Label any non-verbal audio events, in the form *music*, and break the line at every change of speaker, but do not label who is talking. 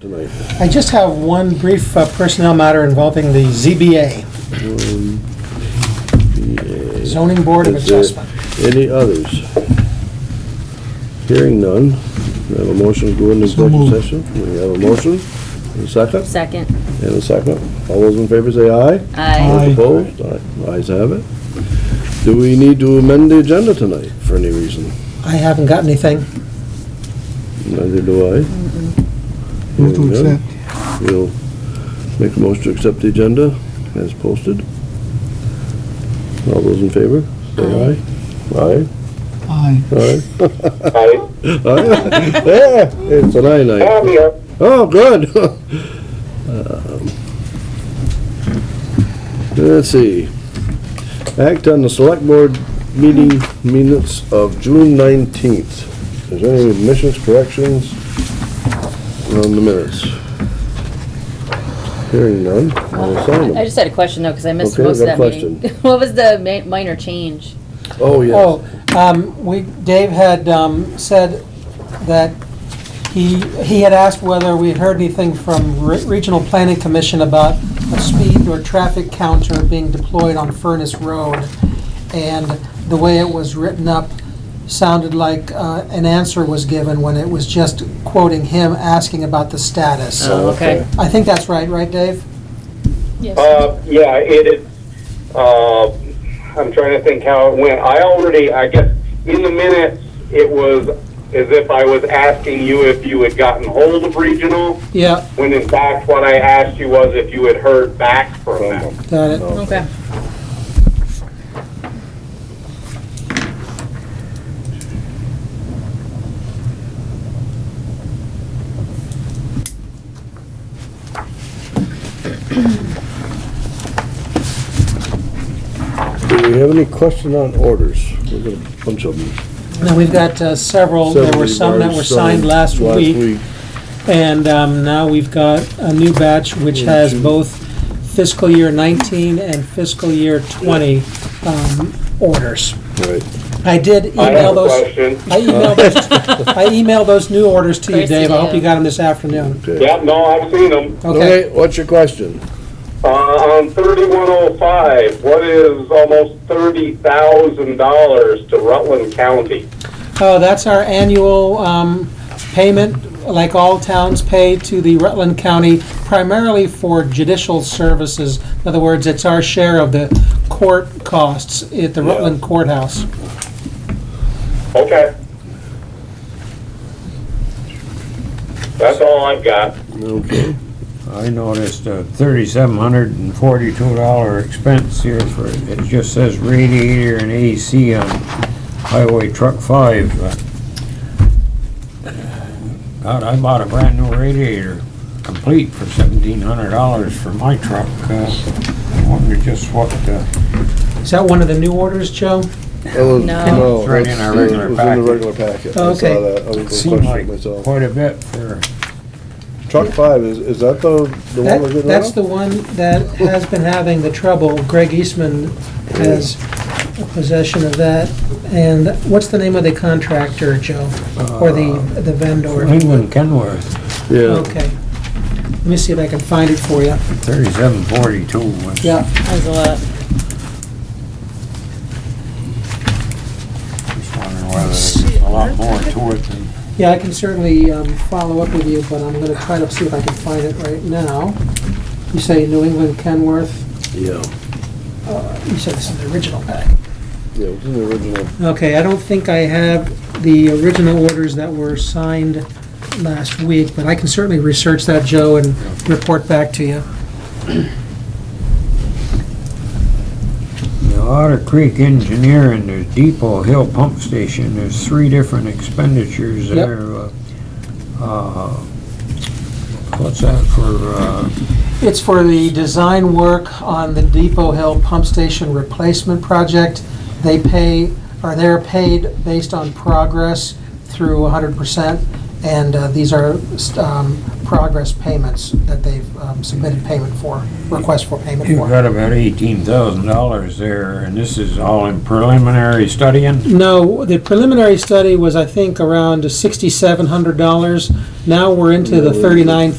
Tonight.
I just have one brief uh, personnel matter involving the ZBA, Zoning Board of
Is there
Adjustment.
Any others? Hearing none. We have a motion to go into executive session. We have a motion, and a second,
Second.
and a second. All those in favor say aye.
Aye.
Those opposed? Aye. Ayes have it. Do we need to amend the agenda tonight for any reason?
I haven't got anything.
Neither do I.
Move to
Hearing none.
accept.
We'll make a motion to accept the agenda as posted. All those in favor, say aye. Aye,
Aye.
aye.
Hi,
Aye. Oh, Yeah, it's an aye night.
I'm here.
Oh, good. *laughs* Um, Let's see. Act on the select board meeting minutes of June nineteenth. Is there any admissions, corrections on the minutes? Hearing none, I'll sign
I
them.
just had a question though, because I missed
Okay,
most of
got
that
a
meeting. *laughs* What was the ma- minor change?
Oh, yes.
Oh, um, we, Dave had um, said that he, he had asked whether we had heard anything from Re- Regional Planning Commission about a speed or traffic counter being deployed on Furnace Road. And the way it was written up sounded like uh, an answer was given when it was just quoting him asking about the status.
Oh, okay.
I think that's right, right, Dave?
Uh, yeah, it is, uh, I'm trying to think how it went. I already, I guess, in the minutes, it was as if I was asking you if you had gotten hold of regional,
Yeah,
when in fact, what I asked you was if you had heard back from them.
got it.
Okay.
Do we have any question on orders? We've got a bunch of them.
Now, we've got uh, several, there were some that were signed last week. And um, now we've got a new batch which has both fiscal year 19 and fiscal year 20 um, orders.
Right.
I did email
I have a
those,
question.
I emailed those, I emailed those new orders to you,
Of course you
Dave. I hope
did.
you got them this afternoon.
Okay.
Yeah, no, I've seen them.
Okay,
Okay, what's your question?
Uh, on thirty-one oh five, what is almost thirty thousand dollars to Rutland County?
oh, that's our annual um, payment, like all towns pay to the Rutland County, primarily for judicial services. In other words, it's our share of the court costs at the Rutland courthouse.
Okay. That's all I've got.
Okay.
I noticed a thirty-seven hundred and forty-two dollar expense here for, it just says radiator and AC on Highway Truck Five. but, uh, God, I bought a brand new radiator, complete for seventeen hundred dollars for my truck. uh, I wonder just what, uh,
Is that one of the new orders, Joe?
That was-
No.
It's right in our
Oh, that's-
regular
it was in
packet.
the regular packet. I
Oh, okay.
saw that. I was
it
gonna
seemed like
question myself.
quite a bit for,
Truck five, is, is that the, the one we're
That,
getting
that's
rid
the
of?
one that has been having the trouble. Greg Eastman has possession of that. And what's the name of the contractor, Joe? Or the,
Uh,
the vendor?
England Kenworth,
Yeah,
Okay. Let me see if I can find it for you.
thirty-seven forty-two was.
Yeah,
That was a lot.
Just wondering whether there's a lot more to it than.
yeah, I can certainly um, follow up with you, but I'm gonna try to see if I can find it right now. You say New England Kenworth, uh,
yeah,
you said this is the original pack.
yeah, it was in the original.
Okay, I don't think I have the original orders that were signed last week, but I can certainly research that, Joe, and report back to you.
The Otter Creek Engineer and the Depot Hill Pump Station, there's three different expenditures
Yep.
there. Uh, uh, What's that for, uh,
It's for the design work on the Depot Hill Pump Station Replacement Project. They pay, or they're paid based on progress through 100%, and uh, these are um, progress payments that they've um, submitted payment for, request for payment
you've
for.
got about eighteen thousand dollars there, and this is all in preliminary studying?
No, the preliminary study was, I think, around $6,700. Now we're into the 39